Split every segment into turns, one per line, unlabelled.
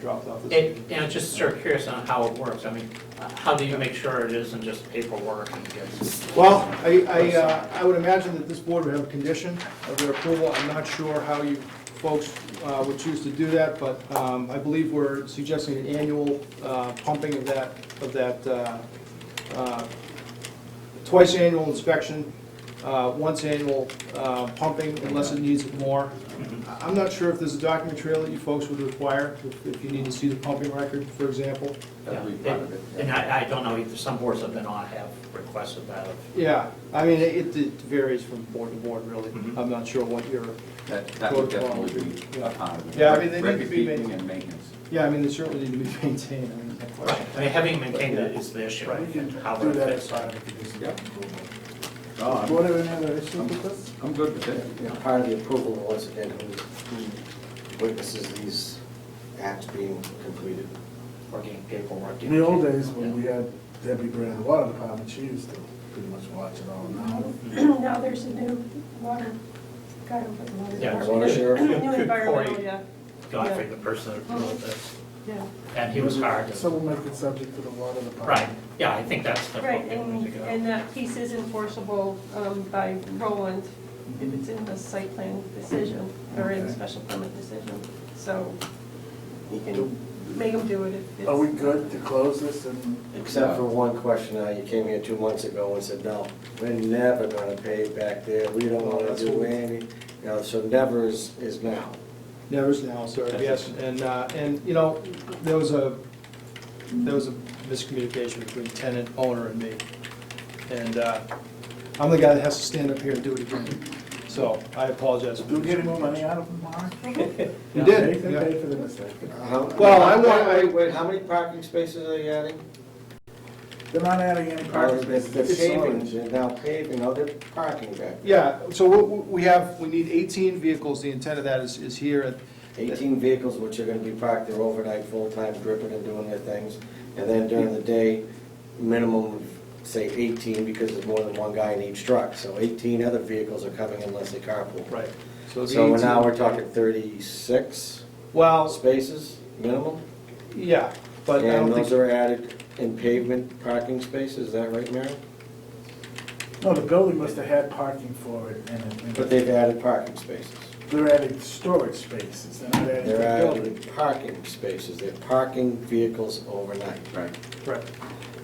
dropped off this
It,
evening.
you know, just sort of curious on how it works. I mean, uh, how do you make sure it isn't just paperwork and gets?
Well, I, I, uh, I would imagine that this board would have a condition of their approval. I'm not sure how you folks uh, would choose to do that, but um, I believe we're suggesting an annual uh, pumping of that, of that, uh, uh, twice annual inspection, uh, once annual uh, pumping unless it needs it more. I- I'm not sure if there's a document trail that you folks would require, if- if you need to see the pumping record, for example.
That'd be
Yeah,
part of it, yeah.
And I, I don't know either, some boards have been on have requested that of,
Yeah, I mean, it it varies from board to board, really.
Mhm.
I'm not sure what your,
That, that would definitely be a part of it.
Yeah, I mean, they need to
Record
be
keeping
made-
and maintenance.
yeah, I mean, they certainly need to be maintained, I mean, there's no question.
I mean, having maintained it is the issue.
We can
How
do
it
that
fits.
as part of the conditions
Yeah.
of approval.
No, I'm-
Board have any other issues with this?
I'm good with it.
You know, part of the approval was again who who witnesses these acts being completed.
Or getting paperwork.
In the old days, when we had Debbie Brand, the water department, she used to pretty much watch it all now.
Now there's a new water guy over the water
Yeah,
department.
water sheriff.
New
Good
environmental,
point.
yeah,
Godfrey, the person that wrote this,
yeah.
and he was
Mm-hmm.
hard.
So we'll make it subject to the water
Right,
department.
yeah, I think that's the.
Right,
appropriate way
and,
to go.
and that piece is enforceable um, by Roland if it's in the site plan decision or in the
Okay.
special permit decision. So you
Do-
can make them do it if it's.
Are Oh, we good to close this and?
Except for one question, uh, you came here two months ago and said, no, we're never gonna pay back there, we don't wanna do any, you know, so never is, is now.
Never's now, sir, yes, and, uh, and, you know, there was a, there was a miscommunication between tenant, owner, and me. And uh, I'm the guy that has to stand up here and do it again, so I apologize.
Do we get any more money out of them, Mark?
You
They
did,
can
yeah.
pay for the mistake.
How-
Well, I want-
Wait, wait, how many parking spaces are you adding?
They're not adding any parking
They're
spaces.
they're
It's
paving,
orange.
they're now paving, oh, they're parking back.
Yeah, so we- we have, we need 18 vehicles, the intent of that is, is here at
Eighteen vehicles which are gonna be parked there overnight, full-time, dripping and doing their things. And then during the day, minimum, of say eighteen, because there's more than one guy in each truck. So eighteen other vehicles are coming unless they carpool.
Right.
So
the
now
18
we're talking thirty-six
Well,
spaces minimum?
yeah, but um, I
And
don't
those
think,
are added in pavement parking spaces, is that right, Mary?
No, the building must have had parking for it and it- and
But they've added parking spaces.
they're adding storage spaces. They're not adding
They're
the building.
adding parking spaces, they're parking vehicles overnight.
Right.
right,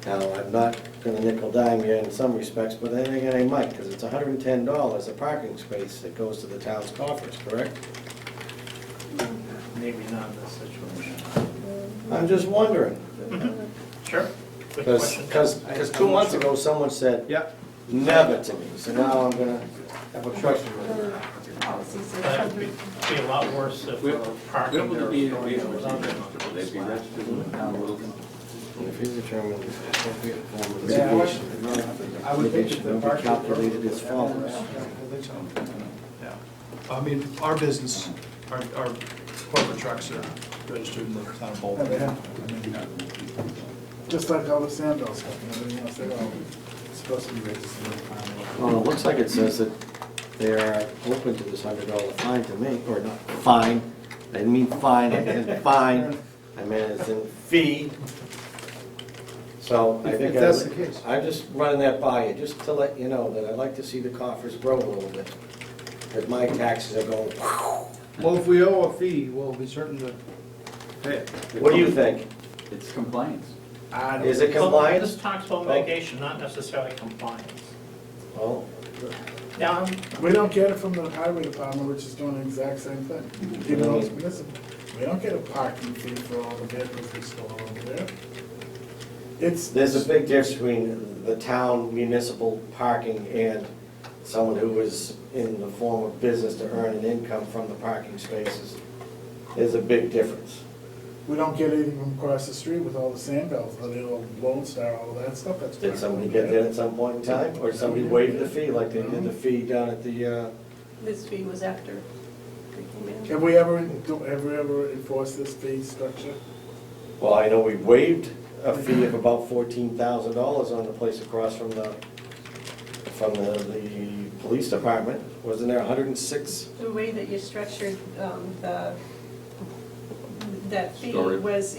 Now, I'm not gonna nickel dime you in some respects, but then again, I might, because it's hundred and ten dollars a parking space that goes to the town's coffers, correct?
Maybe not in this situation.
I'm just wondering,
Mm-hmm.
Sure. Good
because,
question.
because, two months ago, someone said,
yeah.
never to me, so now I'm gonna have a question.
Policies are
That would
covered.
be be a lot worse if we're parking
Would
there.
it be-
or
be-
something on
They'd be
the
registered with the town of Littleton.
And If you determine the appropriate form of
Yeah.
mitigation,
I would think that the
mitigation will be
parking-
calculated as follows.
Yeah, I mean, our business, our, our corporate trucks are registered in the town of
Yeah, they
Bolton.
have to. I mean, Just like all the Sandal stuff and everything else, they're all supposed to be registered. in the town.
Well, it looks like it says that they are open to this hundred dollar fine to me, or not, fine, I didn't mean fine, I meant fine, I meant it's in fee. So I
If-
think.
if
I
that's
would-
the case.
I'm just running that by you, just to let you know that I'd like to see the coffers grow a little bit, that my taxes are going,
Well, if we owe a fee, we'll be certain to pay it.
what do you think?
It's compliance.
I don't-
Is it
Well, This
compliance?
talks about mitigation, not necessarily compliance.
Oh,
Now, I'm-
We don't get it from the highway department, which is doing the exact same thing, even though it's municipal. We don't get a parking fee for all the vehicles we store over there. It's.
There's a big difference between the town municipal parking and someone who is in the form of business to earn an income from the parking spaces. There's a big difference.
We don't get it even across the street with all the Sandals, the little Lone Star, all that stuff that's.
Did somebody get that at some point in time, or somebody waived the fee, like they did the fee down at the, uh,
This fee was after we came in.
Have we ever, do, have we ever enforced this fee structure?
well, I know we waived a fee of about fourteen thousand dollars on the place across from the, from the, the police department. Wasn't there hundred and six
The way that you structured um, the, that fee
Storage.
was